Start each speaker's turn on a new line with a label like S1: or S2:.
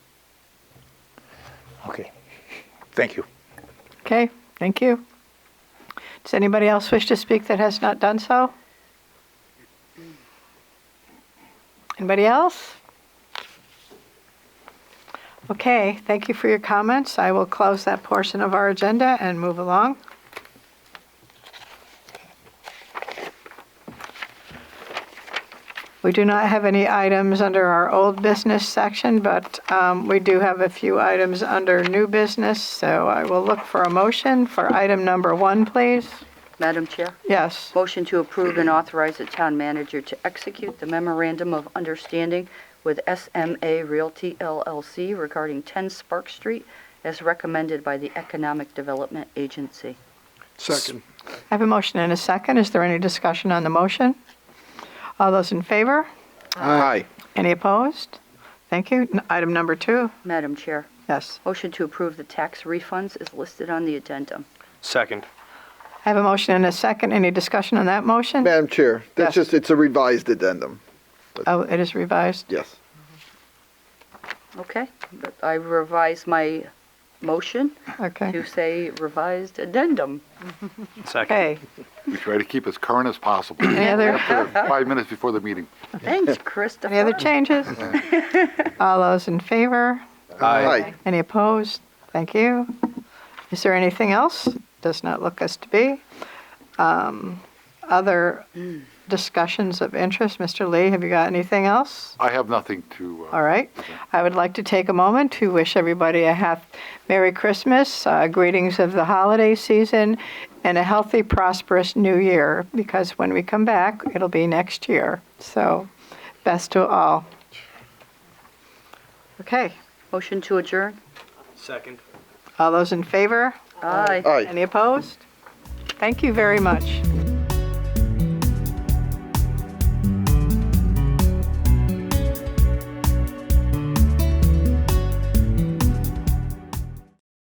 S1: Okay. Thank you.
S2: Okay, thank you. Does anybody else wish to speak that has not done so? Anybody else? Okay, thank you for your comments. I will close that portion of our agenda and move along. We do not have any items under our old business section, but um, we do have a few items under new business, so I will look for a motion for item number one, please.
S3: Madam Chair,
S2: Yes,
S3: motion to approve and authorize the town manager to execute the memorandum of understanding with SMA Realty LLC regarding 10 Spark Street as recommended by the Economic Development Agency.
S4: Second.
S2: I have a motion and a second. Is there any discussion on the motion? All those in favor?
S4: Aye.
S2: Any opposed? Thank you. N- Item number two,
S3: Madam Chair,
S2: yes.
S3: motion to approve the tax refunds is listed on the addendum.
S5: Second.
S2: I have a motion and a second. Any discussion on that motion?
S4: Madam Chair, that's
S2: Yes.
S4: just, it's a revised addendum.
S2: Oh, it is revised.
S4: Yes.
S3: Okay, but I revise my motion
S2: Okay.
S3: to say revised addendum.
S5: Second.
S2: Okay,
S6: We try to keep as current as possible.
S2: any other?
S6: Five minutes before the meeting.
S3: Thanks, Christopher.
S2: Any other changes? All those in favor?
S4: Aye.
S2: Any opposed? Thank you. Is there anything else? Does not look as to be. Um, Other discussions of interest? Mr. Lee, have you got anything else?
S6: I have nothing to,
S2: All
S6: uh,
S2: right. I would like to take a moment to wish everybody a happy Merry Christmas, uh, greetings of the holiday season, and a healthy, prosperous new year, because when we come back, it'll be next year. So, best to all. Okay.
S3: Motion to adjourn?
S5: Second.
S2: All those in favor?
S3: Aye.
S4: Aye.
S2: Any opposed? Thank you very much.